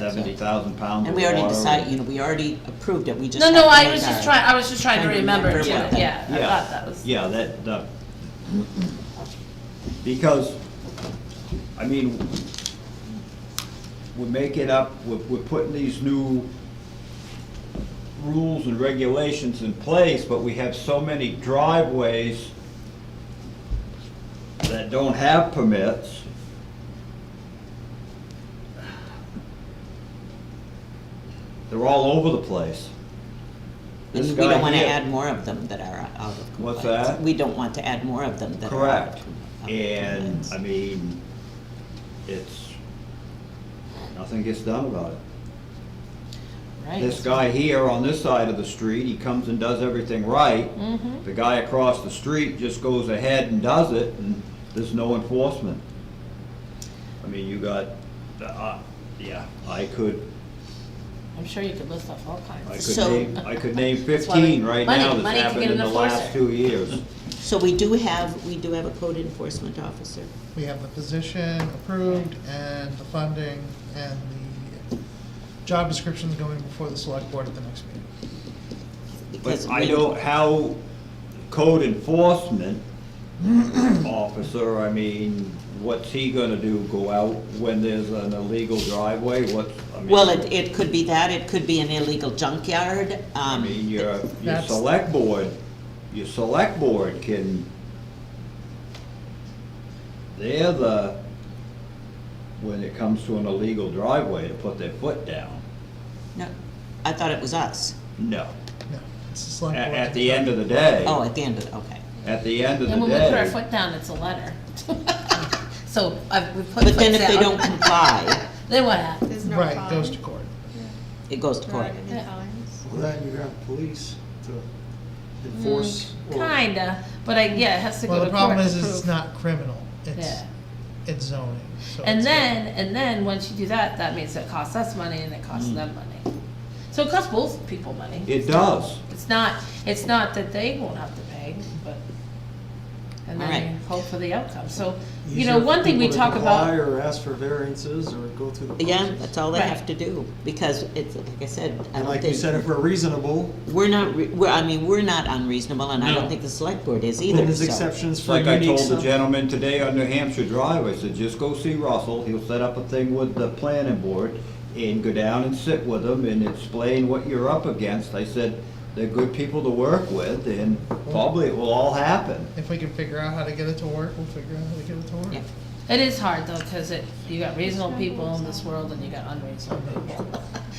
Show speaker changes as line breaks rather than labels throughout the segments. seventy thousand pounds of
And we already
water.
decided, you know, we already approved it, we just.
No,
have
no,
to
I
make
was just
our-
trying, I was just trying to
trying to
remember,
remember
yeah,
what the-
yeah, I
Yeah.
thought that was.
Yeah, that, the, because, I mean, we're making up, we're, we're putting these new rules and regulations in place, but we have so many driveways that don't have permits. They're all over the place.
And
This
we
guy
don't wanna
here-
add more of them that are out of compliance.
What's that?
We don't want to add more of them that are out of
Correct,
com- out of
and,
compliance.
I mean, it's, nothing gets done about it.
Right.
This guy here on this side of the street, he comes and does everything right.
Mm-hmm.
The guy across the street just goes ahead and does it, and there's no enforcement. I mean, you got, uh, yeah, I could,
I'm sure you could list off all
I
kinds.
could
So-
name, I could name
That's why we-
fifteen right
money-
now
money
that's
to get
happened in
an
the last
enforcer.
two years.
So we do have, we do have a code enforcement officer.
We have the position approved and the funding and the job descriptions going before the select board at the next meeting.
because
But I
we-
don't, how code enforcement officer, I mean, what's he gonna do, go out when there's an illegal driveway, what, I mean.
Well, it, it could be that, it could be an illegal junkyard,
I
um.
mean, your, your
That's-
select board, your select board can, they're the, when it comes to an illegal driveway, to put their foot down,
No, I thought it was us.
no.
No, it's the
At,
select board.
at the end of the day,
Oh, at the end of, the okay.
at the end of the day.
And when we put our foot down, it's a letter. So I've, we put
But
foot
then if they
down.
don't comply,
Then what happens?
There's no
Right,
fine.
goes to court.
it goes to
There
court.
aren't any fines.
Well, then you have police to enforce.
Mm,
or-
Kinda, but I, yeah, it has to go
Well,
to
the
court.
problem
to
is, is it's
prove.
not criminal, it's,
Yeah.
it's zoning, so.
And
it's-
then, and then, once you do that, that means it costs us money and it costs
Mm.
them money. So it costs both people money.
It does.
It's not, it's not that they won't have to pay, but, and
Alright.
then you hope for the outcome, so, you
Easier
know,
for
one thing we
people to
talk
comply
about,
Or ask for variances or go through the.
Yeah,
process.
that's all they
Right.
have to do, because it's, like I said, I
And
don't
like you said,
think,
if we're reasonable,
we're not, re- we're, I mean, we're not unreasonable, and I don't think the select board is either,
then there's
so-
exceptions
It's
for
like I
unique
told the
stuff.
gentleman today on New Hampshire Drive, I said, just go see Russell, he'll set up a thing with the planning board and go down and sit with them and explain what you're up against. I said, they're good people to work with and probably it will all happen.
If we can figure out how to get it to work, we'll figure out how to get it to work.
Yeah.
it is hard though, cause it, you got reasonable people in this world and you got unreasonable people.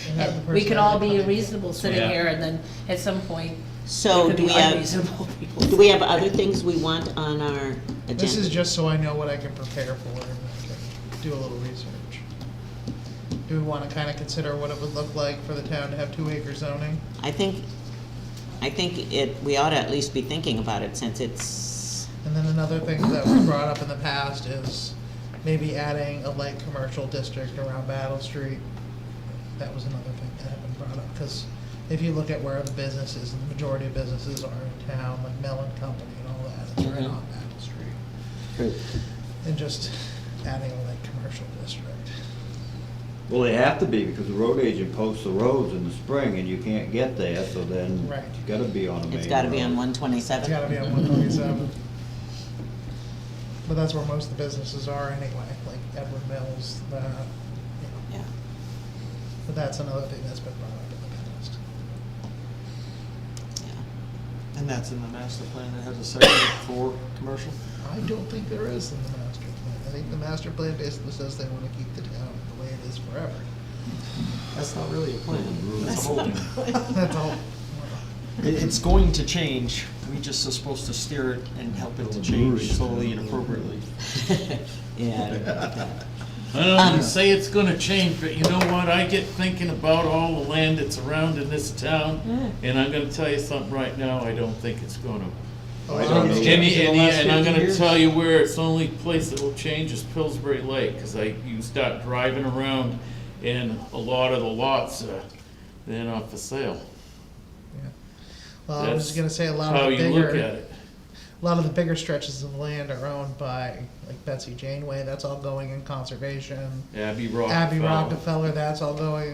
And have the
And we could all be
personality.
reasonable sitting
Yeah.
here and then at some point, there
So
could
do
be
we have,
unreasonable people.
do we have other things we want on our agenda?
This is just so I know what I can prepare for and I can do a little research. Do we wanna kinda consider what it would look like for the town to have two acre zoning?
I think, I think it, we ought to at least be thinking about it, since it's,
And then another thing that was brought up in the past is maybe adding a light commercial district around Battle Street. That was another thing that had been brought up, because if you look at where the businesses, the majority of businesses are in town, like Mellon Company and all that, it's right
Mhm.
on Battle Street. And just adding a light commercial district.
Well, they have to be because the road agent posts the roads in the spring and you can't get there, so then
Right.
it's gotta be on a main
it's gotta be on
road.
one
It's gotta be
twenty-seven.
on one twenty-seven. But that's where most of the businesses are anyway, like Edward Mills, the, you know,
Yeah.
but that's another thing that's been brought up in the past.
yeah.
And that's in the master plan that has a section for commercial?
I don't think there is in the master plan. I think the master plan basically says they wanna keep the town the way it is forever.
That's not really a plan,
Mm-hmm.
that's a whole.
That's all.
It, it's going to change, we just are supposed to steer it and help it
Oh,
to change slowly and appropriately.
Yeah,
I don't wanna say it's gonna change, but you know what, I get thinking about all the land that's around in this town,
Hmm.
and I'm gonna tell you something right now, I don't think it's gonna.
I don't know.
Any,
In the
any,
last
and I'm
50
gonna
years?
tell you where it's the only place that will change is Pillsbury Lake, cause I, you start driving around, and a lot of the lots, uh, they're not for sale.
Yeah. Well, I was
That's
just gonna say a lot
How
of the
you look at
bigger,
it.
a lot of the bigger stretches of land are owned by, like Betsy Janeway, that's all going in conservation.
Abbey Rockefeller.
Abbey Rockefeller, that's all going